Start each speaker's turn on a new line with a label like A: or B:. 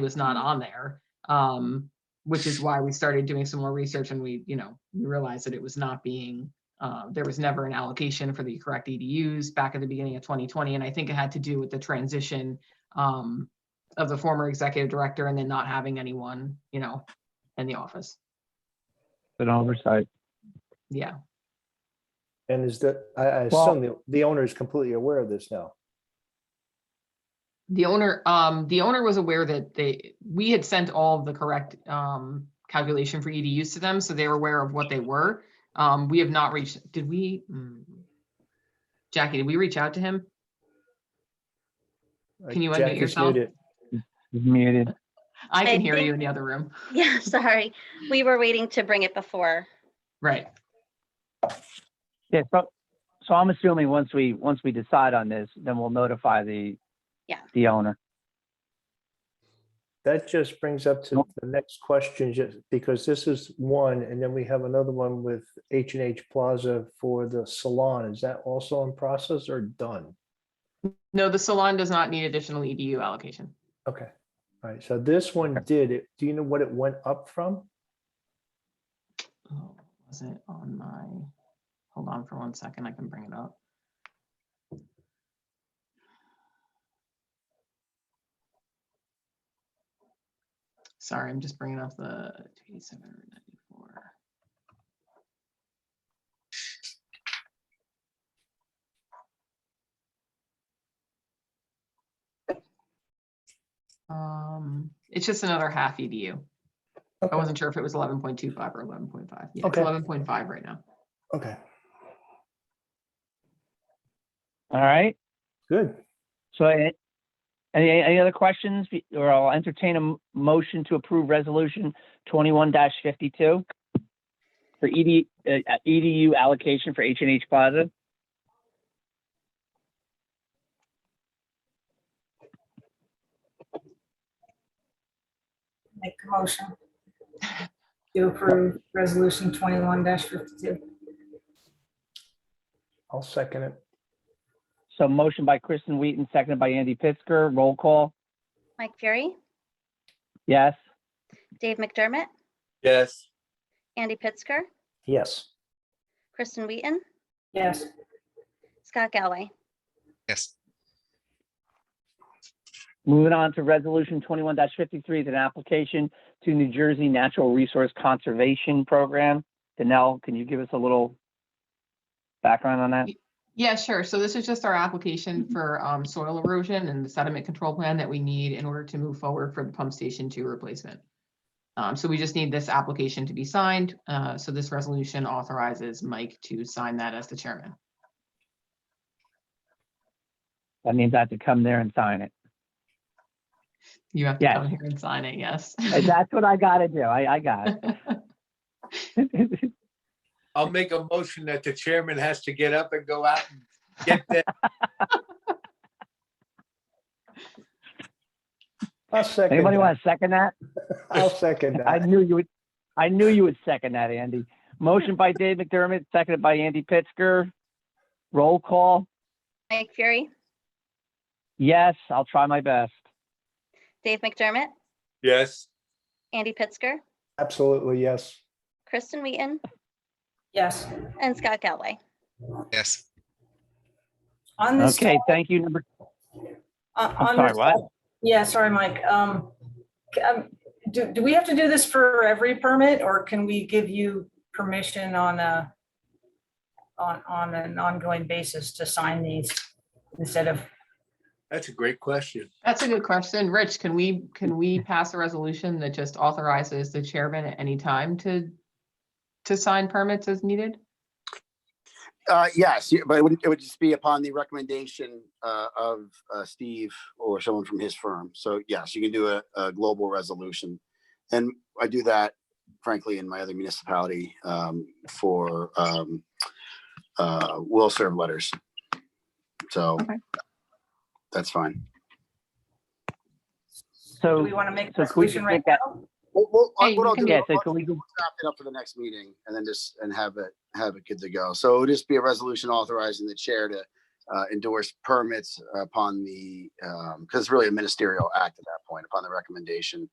A: was not on there. Um, which is why we started doing some more research and we, you know, we realized that it was not being, uh, there was never an allocation for the correct EDUs back at the beginning of 2020. And I think it had to do with the transition um, of the former executive director and then not having anyone, you know, in the office.
B: an oversight.
A: Yeah.
C: And is that, I, I
B: Well-
C: assume the, the owner is completely aware of this now.
A: The owner, um, the owner was aware that they, we had sent all of the correct, um, calculation for EDUs to them, so they were aware of what they were. Um, we have not reached, did we? mm. Jackie, did we reach out to him?
C: Uh,
A: Can you unmute
C: Jack is
A: yourself?
C: muted.
B: He's muted.
A: I
D: I
A: can hear you
D: think-
A: in the other room.
D: Yeah, sorry. We were waiting to bring it before.
A: Right.
B: Yeah, so, so I'm assuming once we, once we decide on this, then we'll notify the,
D: Yeah.
B: the owner.
C: That just brings up to
B: Nope.
C: the next question, just because this is one, and then we have another one with H and H Plaza for the salon. Is that also in process or done?
A: No, the salon does not need additional EDU allocation.
C: Okay, all right, so this one did, it. do you know what it went up from?
A: Oh, Was it on my, hold on for one second, I can bring it up. Sorry, I'm just bringing up the 2794. Um, it's just another half EDU. I
C: Okay.
A: wasn't sure if it was eleven point two five or eleven point five. Yeah, it's
C: Okay.
A: eleven point five right now.
C: Okay,
B: All right,
C: good.
B: so a- any, any other questions? Or I'll entertain a m- motion to approve resolution twenty-one fifty-two for ED, uh, EDU allocation for H and H Plaza.
E: Make a motion to approve resolution twenty-one fifty-two.
C: I'll second it.
B: So motion by Kristen Wheaton, seconded by Andy Pittsger. Roll call.
D: Mike Fury,
B: Yes.
D: Dave McDermott,
F: Yes.
D: Andy Pittsger,
C: Yes,
D: Kristen Wheaton,
E: Yes,
D: Scott Galway.
G: Yes,
B: Moving on to resolution twenty-one fifty-three, is an application to New Jersey Natural Resource Conservation Program. Danell, can you give us a little background on that?
A: Yeah, sure. So this is just our application
B: Mm-hmm.
A: for um, soil erosion and the sediment control plan that we need in order to move forward for the pump station two replacement. Um, So we just need this application to be signed. Uh, So this resolution authorizes Mike to sign that as the chairman.
B: That means I have to come there and sign it.
A: You have to
B: Yes.
A: come here and sign it, yes.
B: Uh, That's what I gotta do. I, I got it.
F: I'll make a motion that the chairman has to get up and go out and get that.
C: I'll second.
B: Anybody
C: that.
B: want to second that?
C: I'll second
B: I
C: that.
B: knew you would, I knew you would second that, Andy. Motion by Dave McDermott, seconded by Andy Pittsger. Roll call.
D: Mike Fury,
B: Yes, I'll try my best.
D: Dave McDermott,
F: Yes.
D: Andy Pittsger,
C: Absolutely, yes.
D: Kristen Wheaton,
E: yes.
D: and Scott Galway.
G: yes.
E: On this,
B: Okay, thank you, number,
E: on-
B: I'm
E: on
B: sorry,
E: this-
B: what?
E: Yeah, sorry, Mike. Um, c- um, do, do we have to do this for every permit or can we give you permission on a on, on an ongoing basis to sign these instead of,
F: That's a great question.
A: That's a good question. Rich, can we, can we pass a resolution that just authorizes the chairman at any time to, to sign permits as needed?
H: Uh, yes, yeah, but it would, it would just be upon the recommendation, uh, of, uh, Steve or someone from his firm. So yes, you can do a, a global resolution. And I do that frankly in my other municipality, um, for, um, uh, will serve letters. So
A: Okay.
H: that's fine.
E: do
B: So,
E: we want to make
B: so
E: a
B: could we just
E: resolution right
B: make that-
E: now?
H: Well, well,
A: Hey,
H: I- what
A: you
H: I'll
A: can-
H: do,
B: yes,
H: I'll
B: it's illegal.
H: draft it up for the next meeting and then just, and have it, have it good to go. So it'll just be a resolution authorizing the chair to, uh, endorse um, permits upon the, because it's really a ministerial act at that point, upon the recommendation